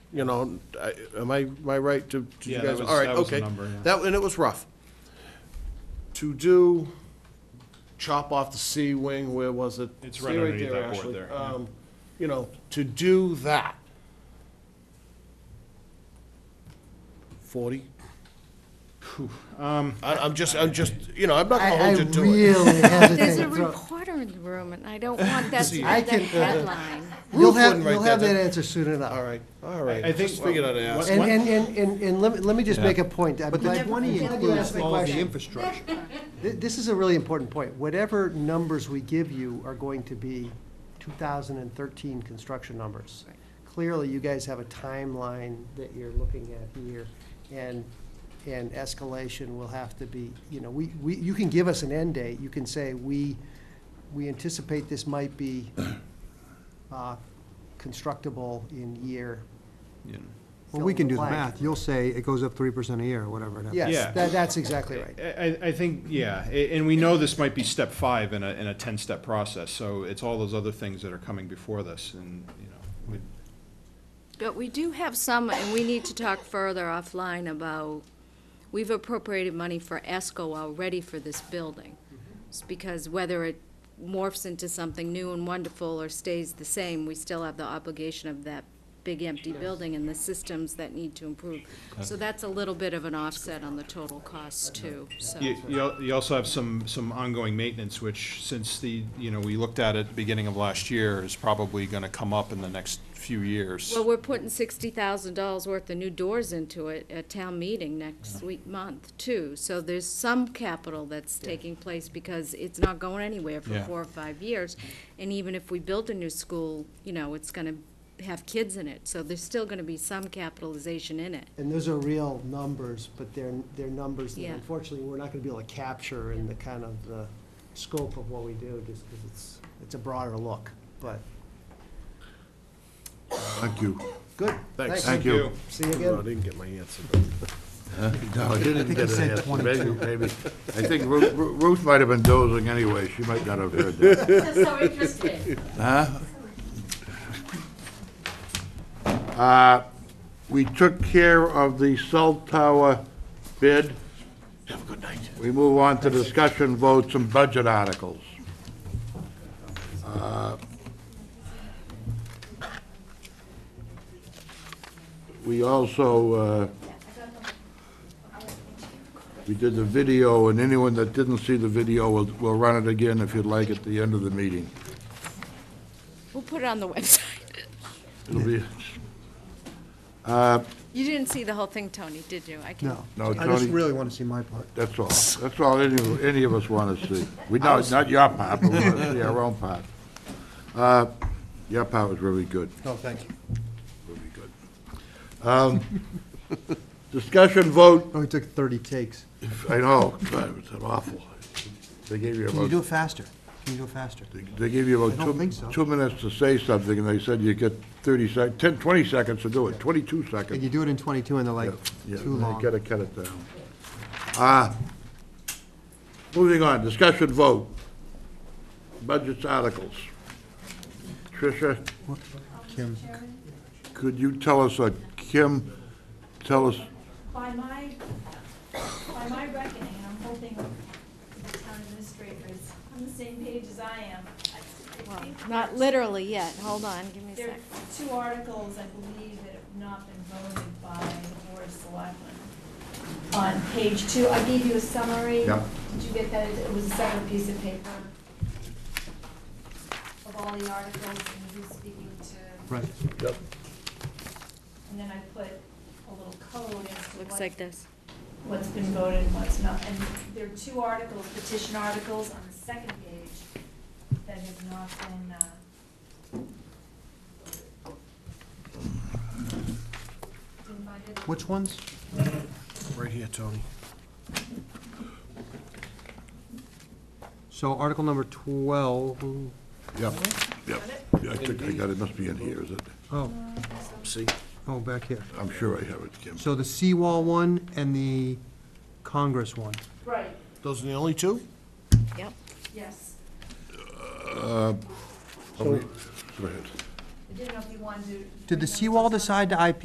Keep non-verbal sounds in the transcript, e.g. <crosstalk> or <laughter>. you know, I- am I, am I right to, did you Yeah, guys? that was- All right, that was the okay. number, yeah. That, and it was rough. To do, chop off the C wing, where was it? It's See right underneath there, that board Ashley. there, yeah. Um, You know, to do that. Forty? Um. I, I'm just, I'm just, you know, I'm not gonna I, I hold you to it. <laughs> really There's a hesitate. to throw- reporter in the room, and I don't want that to be the I can- headline. You'll Ruth have, wouldn't write you'll have that that answer soon All enough. right, all right. I- I think- Just figured I'd ask. And, and, and, and, and let me, let me just make a point. I'm But the glad- twenty I'm glad you includes asked my all of the question. infrastructure. Th- This is a really important point. Whatever numbers we give you are going to be 2013 construction numbers. Clearly, you guys have a timeline that you're looking at here, and, and escalation will have to be, you know, we, we, you can give us an end date. You can say, we, we anticipate this might be uh, constructible in year. Well, we can do the Fill in the math. blank. You'll say it goes up three percent a year, or whatever it happens. Yeah. Yes, that, that's exactly right. I, I think, yeah, a- and we know this might be step five in a, in a ten-step process, so it's all those other things that are coming before this, and, you know, we- But we do have some, and we need to talk further offline about, we've appropriated money for ESCO already for this building. It's because whether it morphs into something new and wonderful or stays the same, we still have the obligation of that big empty building and the systems that need to improve. So that's a little bit of an offset on the total cost too, so. You, you al- you also have some, some ongoing maintenance, which since the, you know, we looked at it at the beginning of last year, is probably gonna come up in the next few years. Well, we're putting sixty thousand dollars worth of new doors into it at town meeting next week, month, too. So there's some capital that's taking place because it's not going anywhere for Yeah. four or five years. And even if we build a new school, you know, it's gonna have kids in it, so there's still gonna be some capitalization in it. And those are real numbers, but they're, they're numbers that Yeah. unfortunately, we're not gonna be able to capture in the kind of the scope of what we do, just because it's, it's a broader look, but, Thank you. good. Thanks. Thank you. See No, you I again. didn't get my answer. No, I didn't he get an said answer. 20. Maybe, maybe. I think Ru- Ru- Ruth might have been dozing anyway. She might not have heard that. So interesting. Uh, We took care of the cell tower bid. Have a good night. We move on to discussion votes and budget articles. Uh, We also, uh, we did the video, and anyone that didn't see the video, will will run it again if you'd like at the end of the meeting. <laughs> We'll put it on the website. It'll be, You didn't see the whole thing, Tony, did you? I can- No. No, I just Tony- really want to see my part. That's all. That's all any, any of us want to see. We know, it's not your part, but we want to see our own part. Uh, Your part was really good, No, thank you. really good. Um, Discussion vote, Only took thirty takes. I know, God, it was awful. They gave you Can you do about, it faster? Can you do it faster? they gave you I about don't think so. two, two minutes to say something, and they said you get 30 sec, 10, 20 seconds to do it, 22 If seconds. you do it in twenty-two and they're like, Yeah, too they long. gotta cut it down. Uh, Moving on, discussion vote. Budgets articles. Tricia, Kim, could you tell us, uh, Kim, tell us, By my, by my reckoning, and I'm hoping the town administrator is on the same page as I am. I- I Well, think Um, Not literally yet, hold on, give me a There sec. are two articles, I believe, that have not been voted by the Board of Selectmen. On page two, I gave you a summary. Yeah. Did you get that? It was a separate piece of paper of all the articles and who's speaking to. right. And then I put a little code as to Looks what- like this. what's been voted and what's not. And there are two articles, petition articles on the second page that have not been, uh, been voted. Which ones? Right here, Tony. So article number twelve, yep, yep, I think I got it, must be in here, is it? oh, See? oh, back here. I'm sure I have it, Kim. So the seawall one and the Congress one. Right, Those are the only two? Yep, yes. Go ahead. I didn't know if you wanted to. Did the seawall decide to IP